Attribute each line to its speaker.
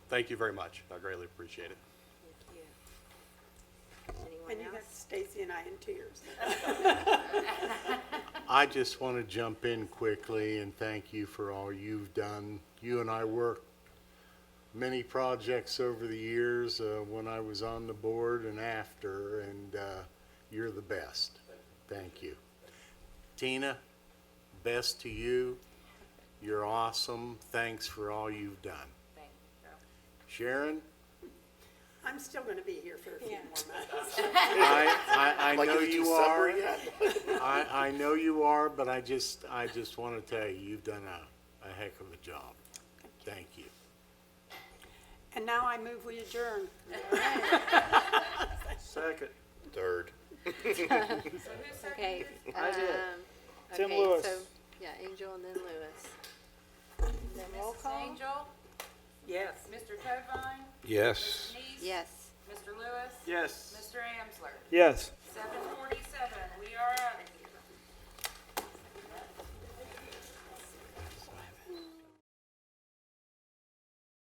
Speaker 1: Thank you very much. I greatly appreciate it.
Speaker 2: And
Speaker 3: Anyone
Speaker 2: you got
Speaker 3: else?
Speaker 2: Stacy and I in tears.
Speaker 4: I just want to jump in quickly and thank you for all you've done. You and I worked many projects over the years, uh, when I was on the board and after, and, uh, you're the best. Thank you. Tina, best to you. You're awesome. Thanks for all you've done.
Speaker 3: Thank
Speaker 4: Sharon,
Speaker 2: I'm still gonna be here for a few more months.
Speaker 4: I, I, I know
Speaker 5: is it
Speaker 4: you
Speaker 5: supper
Speaker 4: are.
Speaker 5: yet?
Speaker 4: I, I know you are, but I just, I just want to tell you, you've done a, a heck of a job. Thank you.
Speaker 2: And now I move we adjourn.
Speaker 6: Second.
Speaker 5: Third.
Speaker 3: Okay.
Speaker 6: I did.
Speaker 3: um,
Speaker 6: Tim
Speaker 3: okay,
Speaker 6: Lewis.
Speaker 3: so- Yeah, Angel and then Lewis.
Speaker 2: Then roll
Speaker 7: Mrs.
Speaker 2: call?
Speaker 7: Angel,
Speaker 2: Yes.
Speaker 7: Mr. Tovine,
Speaker 5: Yes.
Speaker 7: Neese.
Speaker 3: Yes.
Speaker 7: Mr. Lewis.
Speaker 6: Yes.
Speaker 7: Mr. Amsler,
Speaker 6: Yes.
Speaker 7: seven forty-seven.